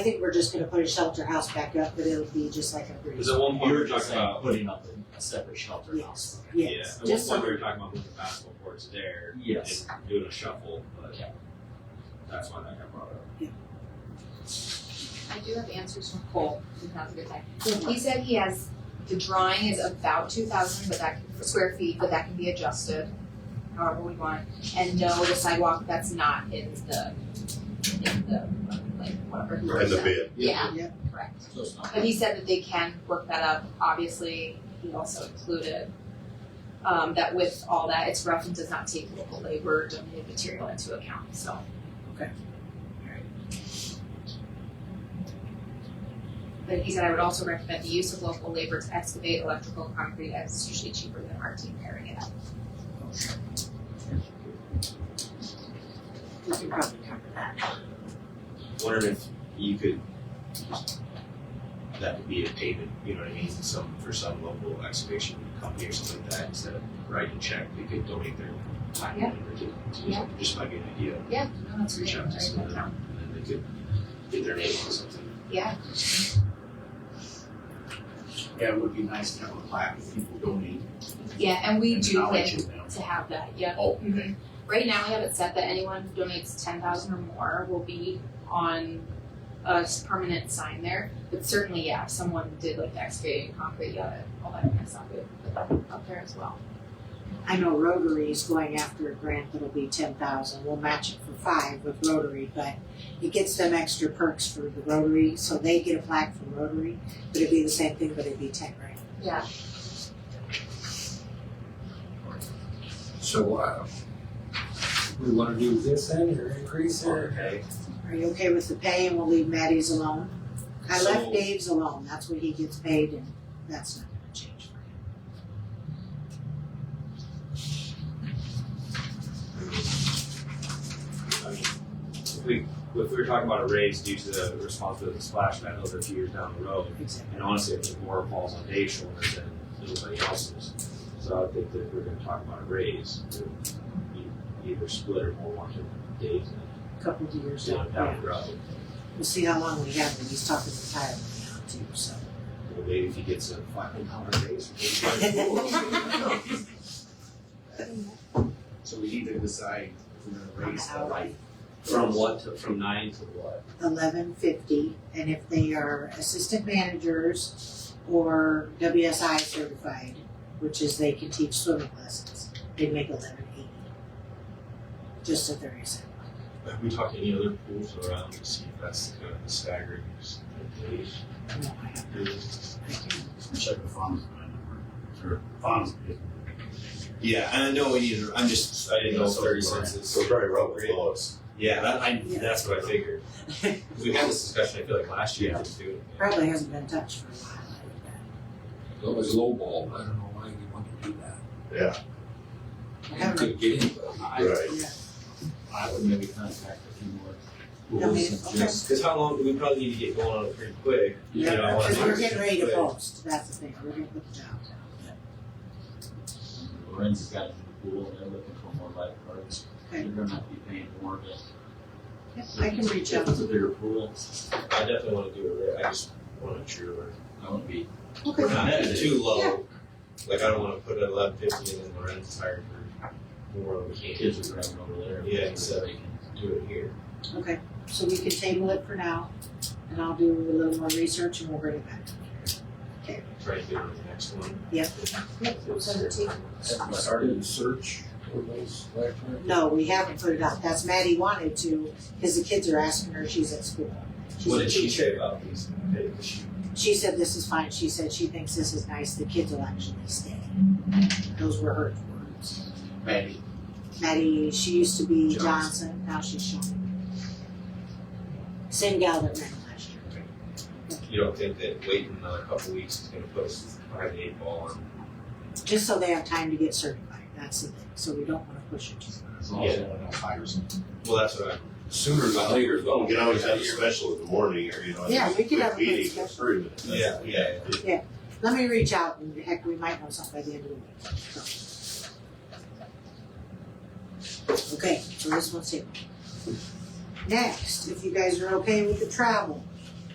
I think we're just gonna put a shelter house back up, but it'll be just like a breeze. Because at one point we You're were just talking saying about, putting up a- a separate shelter house. Yes, yeah, yes, at one just point we so, were talking about putting the basketball courts there. Yes. and Doing a shuffle, but Yeah. that's why that got brought up. I do have answers from Cole, if now's a good time. He said he has, the drawing is about two thousand, but that, can- square feet, but that can be adjusted however we want. And no, the sidewalk, that's not in the, in the, like, whatever. he in the said. bid. Yeah, Yeah. correct. So it's not. But he said that they can work that up, obviously, he also included um that with all that, it's rough and does not take local labor, donated material into account, so. Okay. Alright. But he said, I would also recommend the use of local labor to excavate electrical concrete, as it's usually cheaper than our team carrying it out. we can probably cover that. wondering if you could that would be a payment, you know what I mean? Some for some local excavation company or something like that, instead of writing a check, they could donate their time Yeah. and effort to, to Yeah. just might be an idea. Yeah, no, that's Reach out to someone and then they could get their name on something. Yeah, Yeah, it would be nice to have a plaque if people donate yeah, and we do knowledge plan in them. to have that, yeah. Oh, Mm-hmm. Mhm. Right now, we have it set that anyone who donates ten thousand or more will be on a s- permanent sign there. But certainly, yeah, if someone did like excavating concrete, yeah, all that kind of stuff, we would put that up there as well. I know Rotary is going after a grant that'll be ten thousand, we'll match it for five with Rotary, but it gets them extra perks for the Rotary, so they get a plaque from Rotary, but it'd be the same thing, but it'd be ten grand. Yeah. So, uh, we wanna do this then, or increase or? Okay. Are you okay with the pay and we'll leave Maddie's alone? I left So- Dave's alone, that's what he gets paid and that's not gonna change for him. I mean, if we, if we were talking about a raise due to the responsibility of the splash pad over a few years down the road, Exactly. and honestly, if the more falls on Dave's shoulders than anybody else's. So I think that if we're gonna talk about a raise, we either split or more one to Dave's and Couple of years down, down, yeah. down the road. We'll see how long we have, and he's talking to Tyler now too, so. Well, maybe if he gets a five hundred dollar raise. maybe- So we need to decide if we're gonna raise the light. From what to, from nine to what? Eleven fifty, and if they are assistant managers or WSI certified, which is they can teach swimming lessons, they make eleven eighty. Just at their reason. Have we talked any other pools around to see if that's kind of the staggering No, I don't- I can't. Check the funds. Sure. Funds. Yeah, and I know we need, I'm just, I didn't know if thirty cents is. So very rough with Lois. Yeah, that, I, Yeah. that's what I figured. We had this discussion, I feel like last year, just doing it. Probably hasn't been touched for a while, I would bet. It was lowball, I don't know why you want to do that. Yeah, I You haven't, could get anybody. right. I would maybe contact a few more I schools mean, and okay. just, Cause how long, we probably need to get going on it pretty quick. you know, I yeah, wanna because we're do it getting ready to quick. post, that's the thing, we're gonna put the job out. Lorenz has got a new pool, and they're looking for more lifeguards. Okay. You're gonna have to be paying more, but Yeah, I can reach if out. it's a bigger pool, I definitely wanna do it, right? I just wanna make sure we're, I wouldn't be we're Okay, not at it too Yeah. low. Like, I don't wanna put it at eleven fifty and then Lorenz hired for more than we can kids are driving over there. Yeah, exactly. They do it here. okay, so we can table it for now, and I'll do a little more research and we'll bring it back. Try to do it on the next one. Yeah. Have you started a search for those lifeguards? No, we haven't put it out, that's Maddie wanted to, because the kids are asking her, she's at school. She's What a did she teacher. say about these? Did she- She said this is fine, she said she thinks this is nice, the kids will actually stay. Those were her words. Maddie. Maddie, she used to be Johnson. Johnson, now she's Shaw. Same gal that ran last year. You don't think that waiting another couple weeks is gonna put us behind the eight ball on just so they have time to get certified, that's the thing, so we don't wanna push it too much. As long as Yeah. they don't have Fires. Well, that's what I. Sooner than later, Well, though. we can always have a special in the morning or, you know. Yeah, we could have a good meeting special. for a minute. Yeah, yeah, Let me reach out and heck, we might know something by the end of the week, so. Okay, so this one's here. Next, if you guys are okay with the travel,